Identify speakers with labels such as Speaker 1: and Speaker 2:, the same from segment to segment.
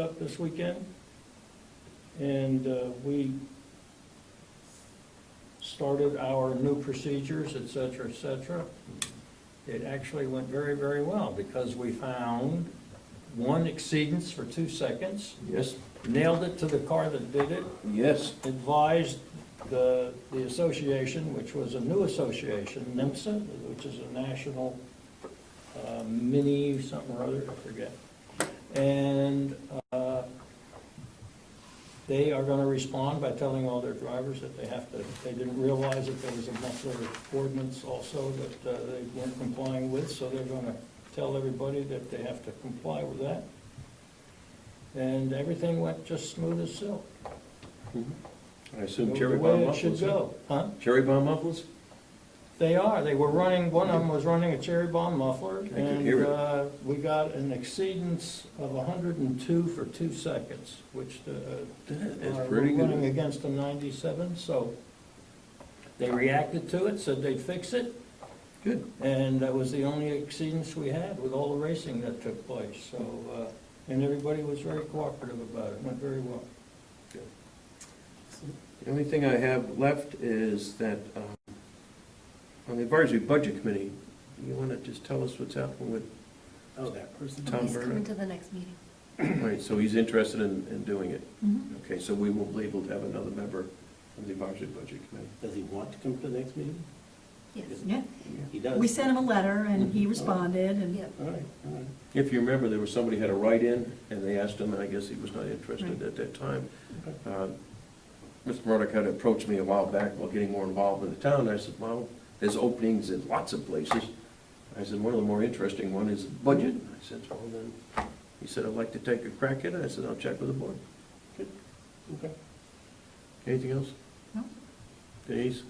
Speaker 1: up this weekend, and uh, we started our new procedures, et cetera, et cetera. It actually went very, very well, because we found one exceedance for two seconds,
Speaker 2: Yes,
Speaker 1: nailed it to the car that did it,
Speaker 2: yes.
Speaker 1: advised the, the association, which was a new association, NIMSA, which is a national uh, mini something or other, I forget. And uh, they are going to respond by telling all their drivers that they have to, they didn't realize that there was a muffler ordinance also that uh, they weren't complying with, so they're going to tell everybody that they have to comply with that. And everything went just smooth as silk.
Speaker 2: I assume
Speaker 1: The
Speaker 2: cherry
Speaker 1: way
Speaker 2: bomb
Speaker 1: it should
Speaker 2: mufflers? huh?
Speaker 1: go, huh?
Speaker 2: Cherry bomb mufflers?
Speaker 1: They are, they were running, one of them was running a cherry bomb muffler,
Speaker 2: could hear
Speaker 1: and
Speaker 2: it.
Speaker 1: uh, we got an exceedance of hundred and two for two seconds, which uh,
Speaker 2: That
Speaker 1: are
Speaker 2: is pretty
Speaker 1: running
Speaker 2: good.
Speaker 1: against a ninety-seven, so they reacted to it, said they'd fix it,
Speaker 2: Good.
Speaker 1: and that was the only exceedance we had with all the racing that took place, so, uh, and everybody was very cooperative about it, went very well.
Speaker 2: The only thing I have left is that, um, on the advisory budget committee, you want to just tell us what's happening with,
Speaker 3: Oh, that person.
Speaker 2: Tom
Speaker 4: He's
Speaker 2: Berner.
Speaker 4: coming to the next meeting.
Speaker 2: all right, so he's interested in, in doing it. Okay, so we will be able to have another member of the advisory budget committee.
Speaker 3: Does he want to come to the next meeting?
Speaker 4: Yes.
Speaker 5: Yeah,
Speaker 3: He does.
Speaker 5: we sent him a letter and he responded and,
Speaker 4: Yeah.
Speaker 3: All right, all right.
Speaker 2: If you remember, there was somebody had a write-in, and they asked him, and I guess he was not interested
Speaker 5: Right.
Speaker 2: at that time.
Speaker 3: Okay.
Speaker 2: Uh, Mr. Murdock had approached me a while back about getting more involved in the town, I said, well, there's openings in lots of places. I said, one of the more interesting one is budget, I said, well, then, he said, I'd like to take a crack at it, I said, I'll check with the board.
Speaker 3: Okay.
Speaker 2: Anything else?
Speaker 5: No.
Speaker 2: Denise?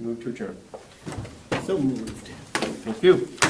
Speaker 2: Move to adjourn.
Speaker 3: So moved.
Speaker 2: Thank you.